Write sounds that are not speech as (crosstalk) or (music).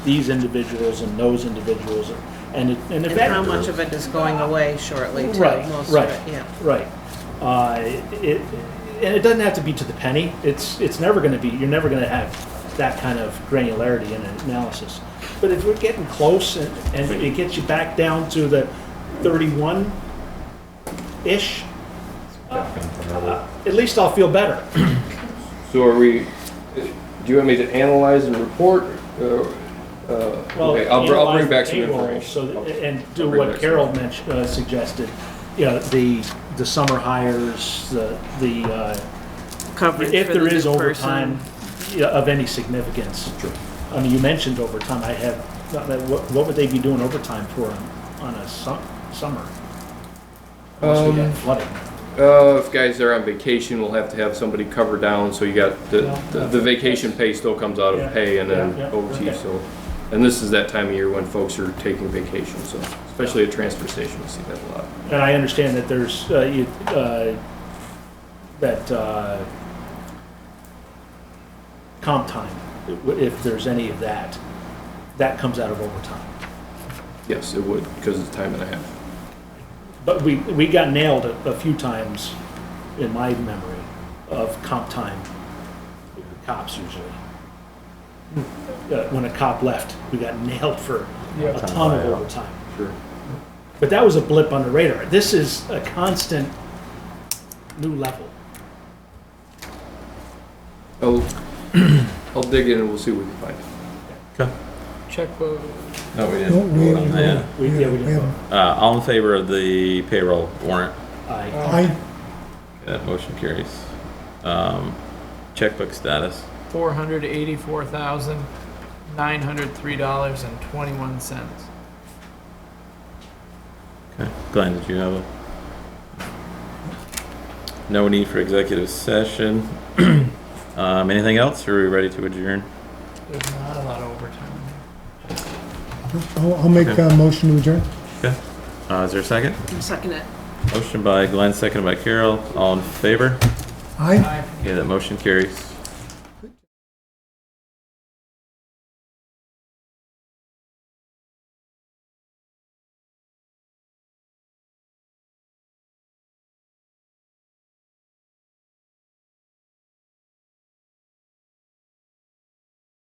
these individuals and those individuals, and it, and if And that. how much of it is going away shortly too? Right, Most of right. it, yeah. Right. Uh, it, and it doesn't have to be to the penny. It's, it's never going to be, you're never going to have that kind of granularity in an analysis. But if we're getting close and, and it gets you back down to the 31-ish, uh, at least I'll feel better. So are we, do you want me to analyze and report? or, uh, Well, Okay, I'll br- I'll bring analyze back the some payroll, information. So, I'll- th- and do I'll bring what back some. Carol mentioned, uh, suggested, you know, the, the summer hires, the, the, uh, Coverage if for the there is new overtime person. yeah, of any significance. Sure. I mean, you mentioned overtime, I have, not that- what, what would they be doing overtime for on, on a su- summer? Unless we Um, get flooding. Uh, if guys are on vacation, we'll have to have somebody cover down, so you got, the, Yeah. the- the vacation pay still comes out Yeah. of pay and then Yeah, yeah, OT, okay. so. And this is that time of year when folks are taking vacation, so, especially at transfer station, we see that a lot. And I understand that there's, uh, you, uh, that, uh, comp time, if there's any of that, that comes out of overtime. Yes, it would, because it's time and a half. But we, we got nailed a, a few times in my memory of comp time, with the cops usually. Uh, When a cop left, we got nailed for a ton of overtime. Sure. But that was a blip on the radar. This is a constant new level. I'll, (clears throat) I'll dig in and we'll see what we can find. No, we No, didn't we vote on didn't that. We, yeah, we didn't haven't. vote. Uh, all in favor of the payroll warrant? Aye. I, That motion carries. Um, checkbook status. four hundred eighty-four thousand nine hundred three dollars and twenty-one cents. Okay. Glenn, did you have a? No need for executive session. (clears throat) um, anything else? Or are we ready to adjourn? There's not a lot of overtime. I'll, I'll make a motion to adjourn. Uh, is there a second? Second it. Motion by Glenn, seconded by Carol. All in favor? Aye. I Okay, that motion carries.